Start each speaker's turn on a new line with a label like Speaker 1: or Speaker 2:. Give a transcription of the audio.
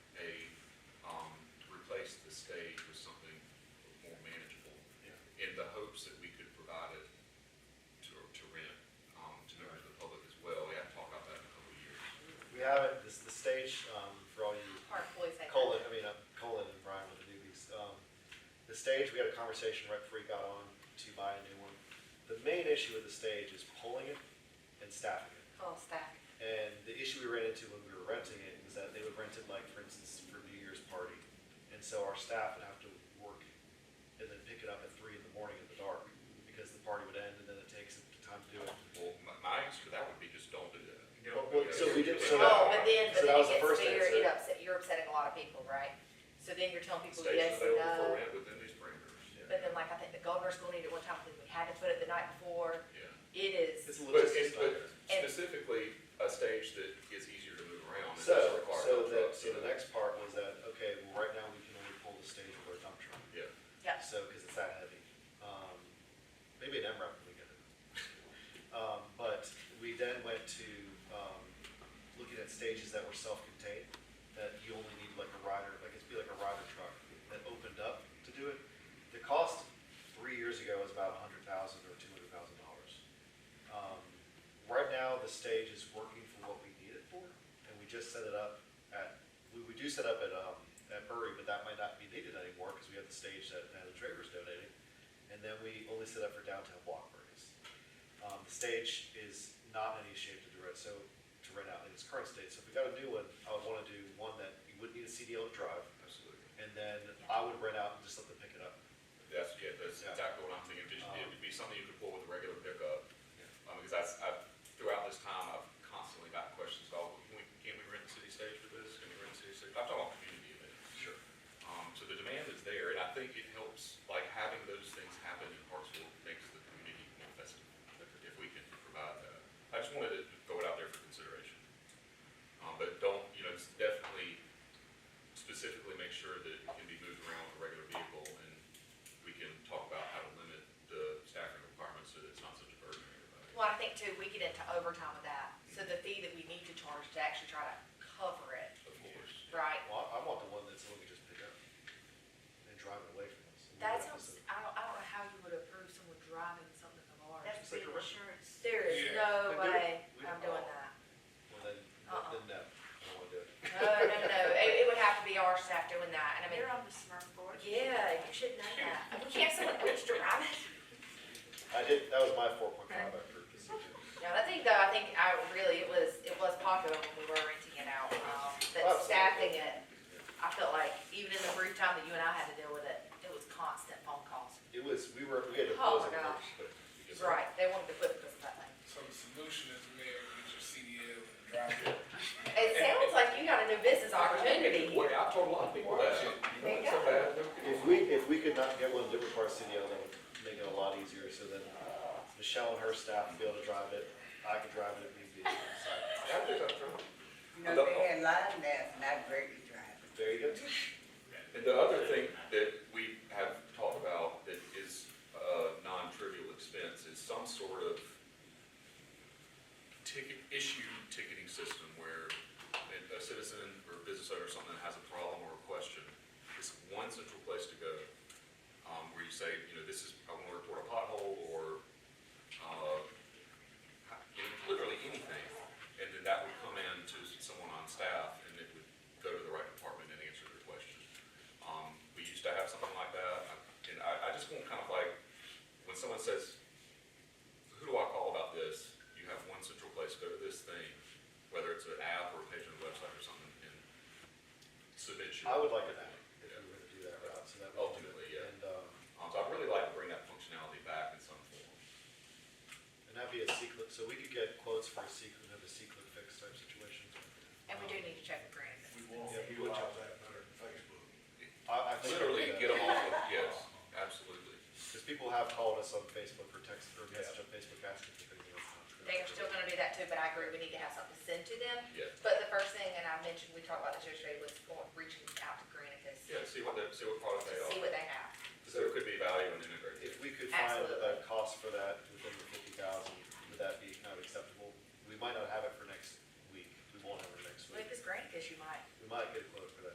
Speaker 1: um, um,
Speaker 2: um, uh, Um, stage, we had a conversation right before he got on to buy a new one. The main issue with the stage is pulling it and staffing it.
Speaker 3: Full stack.
Speaker 2: And the issue we ran into when we were renting it was that they would rent it like, for instance, for New Year's party. And so our staff would have to work and then pick it up at three in the morning in the dark because the party would end and then it takes time to do it.
Speaker 1: Well, my, my answer to that would be just don't do that.
Speaker 2: Well, so we did- so that-
Speaker 3: Oh, but then,
Speaker 2: so
Speaker 3: but
Speaker 2: that was
Speaker 3: then
Speaker 2: the
Speaker 3: it gets
Speaker 2: first
Speaker 3: to your, it
Speaker 2: answer.
Speaker 3: upset, you're upsetting a lot of people, right? So then you're telling people
Speaker 1: Stations
Speaker 3: yes uh, and
Speaker 1: available for
Speaker 3: no,
Speaker 1: rent within these parameters, yeah.
Speaker 3: but then like I think the governor's gonna need it one time, because we had to put it the night before,
Speaker 1: Yeah.
Speaker 3: it is,
Speaker 2: It's a
Speaker 1: But, and-
Speaker 2: logistics
Speaker 1: but
Speaker 2: nightmare.
Speaker 3: And-
Speaker 1: specifically, a stage that is easier to move around and
Speaker 2: So,
Speaker 1: doesn't require
Speaker 2: so
Speaker 1: dump
Speaker 2: the,
Speaker 1: trucks.
Speaker 2: so the next part was that, okay, well, right now we can only pull the stage with our dump truck.
Speaker 1: Yeah.
Speaker 3: yeah.
Speaker 2: So, because it's that heavy. Um, maybe an MRAP would get it. Um, but we then went to, um, looking at stages that were self-contained, that you only need like a rider, like it'd be like a rider truck that opened up to do it. The cost three years ago was about a hundred thousand or two hundred thousand dollars. Um, right now, the stage is working for what we need it for, and we just set it up at, we, we do set up at, um, at Murray, but that might not be needed anymore, because we have the stage that, that the Travers donating. And then we only set up for downtown block parties. Um, the stage is not in any shape to direct, so, to rent out in its current state, so if we got a new one, I would wanna do one that you wouldn't need a CDL to drive,
Speaker 1: Absolutely.
Speaker 2: and then I would rent out and just let them pick it up.
Speaker 1: That's, yeah, that's
Speaker 2: Yeah.
Speaker 1: exactly what I'm thinking, Just-
Speaker 2: Um,
Speaker 1: it would be something you could pull with a regular pickup.
Speaker 2: Yeah.
Speaker 1: Um, because I, I, throughout this time, I've constantly got questions about, can we, can we rent the city stage for this, can we rent the city stage, I'm talking about community events.
Speaker 2: Sure.
Speaker 1: Um, so the demand is there, and I think it helps, like, having those things happen in Hartsville makes the community more festive, if- if we can provide that. I just wanted to throw it out there for consideration. Um, but don't, you know, it's definitely specifically make sure that it can be moved around with a regular vehicle, and we can talk about how to limit the staffing requirements so that it's not such a burden on everybody.
Speaker 3: Well, I think too, we get into overtime with that, so the fee that we need to charge to actually try to cover it,
Speaker 1: Of course.
Speaker 3: right?
Speaker 2: Well, I I want the one that someone can just pick up and drive it away from us.
Speaker 4: That sounds, I don't, I don't know how you would approve someone driving something of ours.
Speaker 3: That's
Speaker 2: Just like
Speaker 3: being
Speaker 2: a rent.
Speaker 3: insurance, there is
Speaker 5: Yeah.
Speaker 3: no
Speaker 2: But do it.
Speaker 3: way
Speaker 2: We
Speaker 3: I'm
Speaker 2: don't-
Speaker 3: doing that.
Speaker 2: Well, then,
Speaker 3: Uh-uh.
Speaker 2: then no, I don't wanna do it.
Speaker 3: No, no, no, no, it, it would have to be our staff doing that, and I mean,
Speaker 4: You're on the smart board.
Speaker 3: yeah, you should know that. We can't have someone else drive it.
Speaker 2: I did, that was my four point five, I approved this.
Speaker 3: No, I think though, I think I really, it was, it was popular when we were renting it out, um, but
Speaker 2: Absolutely.
Speaker 3: staffing it, I felt like even in the brief time that you and I had to deal with it, it was constant phone calls.
Speaker 2: It was, we were, we had to
Speaker 3: Oh
Speaker 2: close
Speaker 3: my
Speaker 2: it.
Speaker 3: gosh.
Speaker 1: Because-
Speaker 3: Right, they wanted to put this in that thing.
Speaker 5: So the solution is maybe get your CDL and drive it.
Speaker 3: It sounds like you got a new business opportunity.
Speaker 1: Well, I've told a lot of people that. It's so bad.
Speaker 2: If we, if we could not get one different part of CDL, that would make it a lot easier, so then Michelle and her staff would be able to drive it, I could drive it if need be. So,
Speaker 1: I think I'm trying.
Speaker 6: You know, they had line that's not greatly driving.
Speaker 2: There you go.
Speaker 1: And the other thing that we have talked about that is a non-trivial expense is some sort of ticket, issue ticketing system where a a citizen or business owner or something has a problem or a question, it's one central place to go, um, where you say, you know, this is, I want to report a pothole or, uh, literally anything. And then that would come in to someone on staff and it would go to the right department and answer their question. Um, we used to have something like that, I- and I, I just want kind of like, when someone says, who do I call about this? You have one central place, go to this thing, whether it's an app or a page on the website or something, and submit your.
Speaker 2: I would like an app, if we were to do that route, so that. would-
Speaker 1: Ultimately, yeah.
Speaker 2: And, um,
Speaker 1: Um, so I'd really like to bring that functionality back in some form.
Speaker 2: and that'd be a secret, so we could get quotes for a secret, have a secret fix type situation.
Speaker 3: And we do need to check the grant.
Speaker 7: We won't
Speaker 2: Yeah, we will.
Speaker 7: utilize that better than Facebook.
Speaker 2: I, I think. I'd do
Speaker 1: Literally
Speaker 2: that.
Speaker 1: get them off of, yes, absolutely.
Speaker 2: Because people have called us on Facebook or text or message
Speaker 7: Yeah.
Speaker 2: on Facebook asking for things. that's not true.
Speaker 3: They are still gonna do that too, but I agree, we need to have something to send to them.
Speaker 1: Yeah.
Speaker 3: But the first thing, and I mentioned, we talked about this yesterday, was going- reaching out to Granicus to
Speaker 1: Yeah, see what, the- see what product they
Speaker 3: see
Speaker 1: offer.
Speaker 3: what they have.
Speaker 1: So there could be value in integrating.
Speaker 2: If we could find a
Speaker 3: Absolutely.
Speaker 2: cost for that,